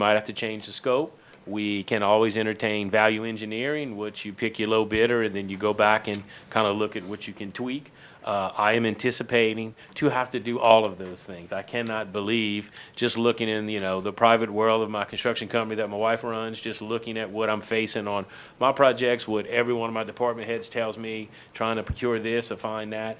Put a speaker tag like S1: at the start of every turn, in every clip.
S1: might have to change the scope. We can always entertain value engineering, which you pick your low bidder, and then you go back and kind of look at what you can tweak. Uh, I am anticipating to have to do all of those things. I cannot believe, just looking in, you know, the private world of my construction company that my wife runs, just looking at what I'm facing on my projects, what every one of my department heads tells me, trying to procure this or find that.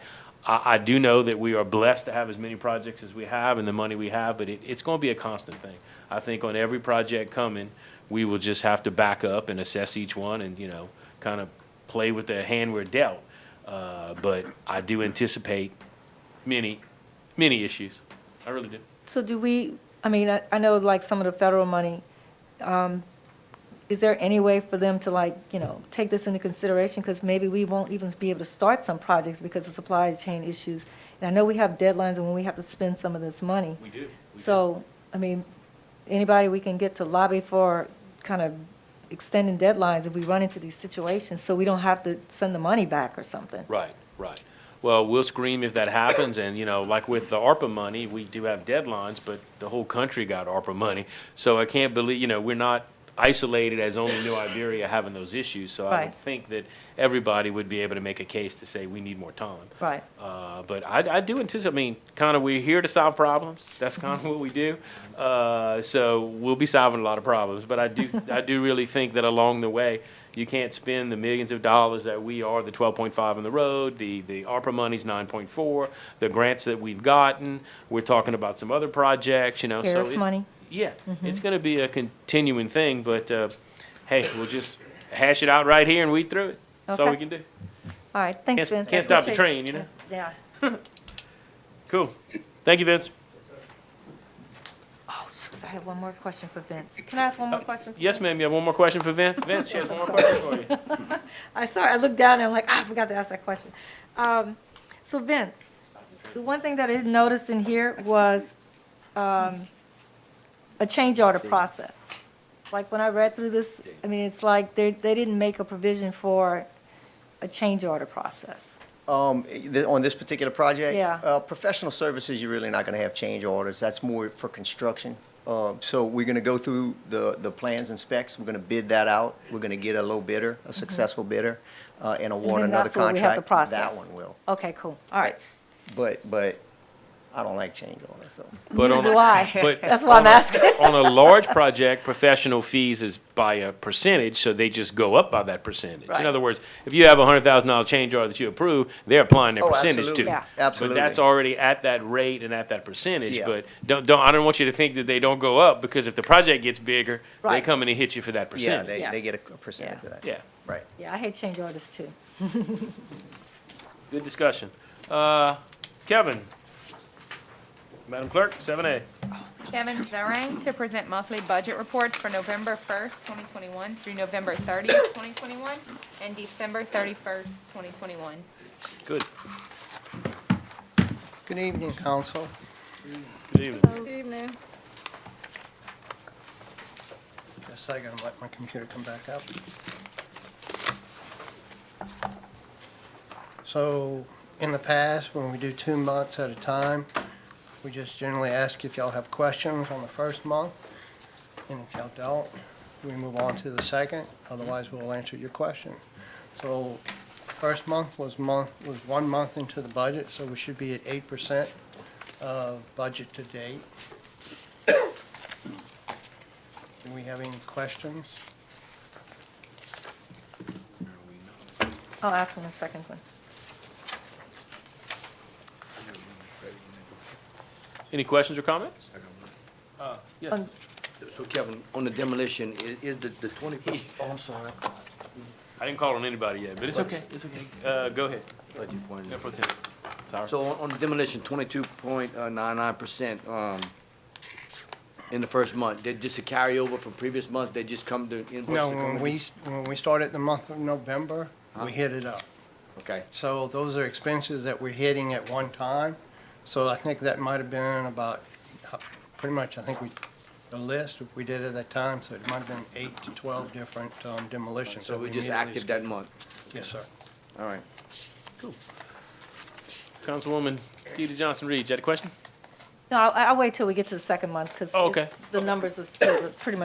S1: I, I do know that we are blessed to have as many projects as we have and the money we have, but it, it's going to be a constant thing. I think on every project coming, we will just have to back up and assess each one and, you know, kind of play with the hand we're dealt. Uh, but I do anticipate many, many issues. I really do.
S2: So do we, I mean, I, I know like some of the federal money, um, is there any way for them to like, you know, take this into consideration? Because maybe we won't even be able to start some projects because of supply chain issues. And I know we have deadlines and when we have to spend some of this money.
S1: We do.
S2: So, I mean, anybody we can get to lobby for kind of extending deadlines if we run into these situations, so we don't have to send the money back or something.
S1: Right, right. Well, we'll scream if that happens, and, you know, like with the ARPA money, we do have deadlines, but the whole country got ARPA money. So I can't believe, you know, we're not isolated as only New Iberia having those issues. So I would
S2: Right.
S1: think that everybody would be able to make a case to say, we need more time.
S2: Right.
S1: Uh, But I, I do anticipate, I mean, kind of, we're here to solve problems. That's kind of what we do. Uh, So we'll be solving a lot of problems. But I do, I do really think that along the way, you can't spend the millions of dollars that we are, the 12.5 on the road, the, the ARPA money's 9.4, the grants that we've gotten. We're talking about some other projects, you know. so
S2: Harris
S1: it-
S2: money? Mm-hmm.
S1: Yeah, it's going to be a continuing thing, but uh, hey, we'll just hash it out right here and weed through it. That's all we
S2: Okay.
S1: can do.
S2: All right, thanks,
S1: Can't-
S2: Vince. I
S1: can't stop the
S2: appreciate-
S1: train, you know?
S2: Yeah.
S1: Cool. Thank you, Vince.
S2: Oh, shoot, I have one more question for Vince. Can I ask one more question? for
S1: Uh, Yes,
S2: Vince?
S1: ma'am, you have one more question for Vince? Vince, she has one more question for you.
S2: I saw, I looked down and I'm like, ah, I forgot to ask that question. Um, so Vince, the one thing that I didn't notice in here was, um, a change order process. Like when I read through this, I mean, it's like they, they didn't make a provision for a change order process.
S3: Um, th- on this particular project?
S2: Yeah.
S3: Uh, professional services, you're really not gonna have change orders, that's more for construction. Um, so we're gonna go through the, the plans and specs, we're gonna bid that out, we're gonna get a low bidder, a successful bidder, uh, and award
S2: Mm-hmm. And then
S3: another
S2: that's what we have to
S3: contract. That
S2: process.
S3: one will.
S2: Okay, cool, all right.
S3: But, but I don't like change orders, so.
S1: But
S2: Neither
S1: on a-
S2: do I,
S1: but
S2: that's why I'm
S1: on a-
S2: asking.
S1: On a large project, professional fees is by a percentage, so they just go up by that percentage. In
S2: Right.
S1: other words, if you have a hundred thousand dollar change order that you approve, they're applying their
S3: Oh,
S1: percentage
S3: absolutely.
S1: to.
S2: Yeah.
S1: it.
S3: Absolutely.
S1: But that's already at that rate and at that percentage,
S3: Yeah.
S1: but don't, don't, I don't want you to think that they don't go up, because if the project gets bigger, they
S2: Right.
S1: come in and hit you for that
S3: Yeah,
S1: percentage.
S3: they, they
S2: Yes.
S3: get a a percentage of that.
S1: Yeah.
S3: Right.
S2: Yeah, I hate change orders too.
S1: Good discussion. Uh, Kevin? Madam Clerk, seven A.
S4: Kevin Zarang to present monthly budget reports for November 1st, 2021 through November 30th, 2021, and December 31st, 2021.
S1: Good.
S5: Good evening, council.
S1: Good evening.
S4: Good evening.
S5: Just a second, let my computer come back up. So, in the past, when we do two months at a time, we just generally ask if y'all have questions on the first month. And if y'all don't, we move on to the second, otherwise we'll answer your question. So, first month was month, was one month into the budget, so we should be at eight percent of budget to date. Do we have any questions?
S2: I'll ask him in a second, Glenn.
S1: Any questions or comments? Uh, yes.
S2: On-
S6: So Kevin, on the demolition, i- is the, the twenty percent? Oh, I'm sorry.
S1: I didn't call on anybody yet, but it's okay, it's okay. Uh, go ahead.
S6: Thought you pointed
S1: Mayor
S6: it.
S1: Pro Tem. Sorry.
S6: So on, on the demolition, twenty-two point uh, nine nine percent, um, in the first month, they just a carryover from previous months, they just come to invoices?
S5: No,
S6: come
S5: when
S6: in?
S5: we, when we started the month of November, we hit it up.
S6: Okay,
S5: So those are expenses that we're hitting at one time. So I think that might have been about, uh, pretty much, I think we, the list we did at that time, so it might have been eight to 12 different um, demolitions.
S6: so
S5: that
S6: we just
S5: immediately
S6: active that month,
S5: skipped. Yes, sir.
S6: all right.
S1: Councilwoman Deidre Johnson Reed, you had a question?
S2: No, I- I'll wait till we get to the second month, because
S1: Okay.
S2: the numbers are still pretty much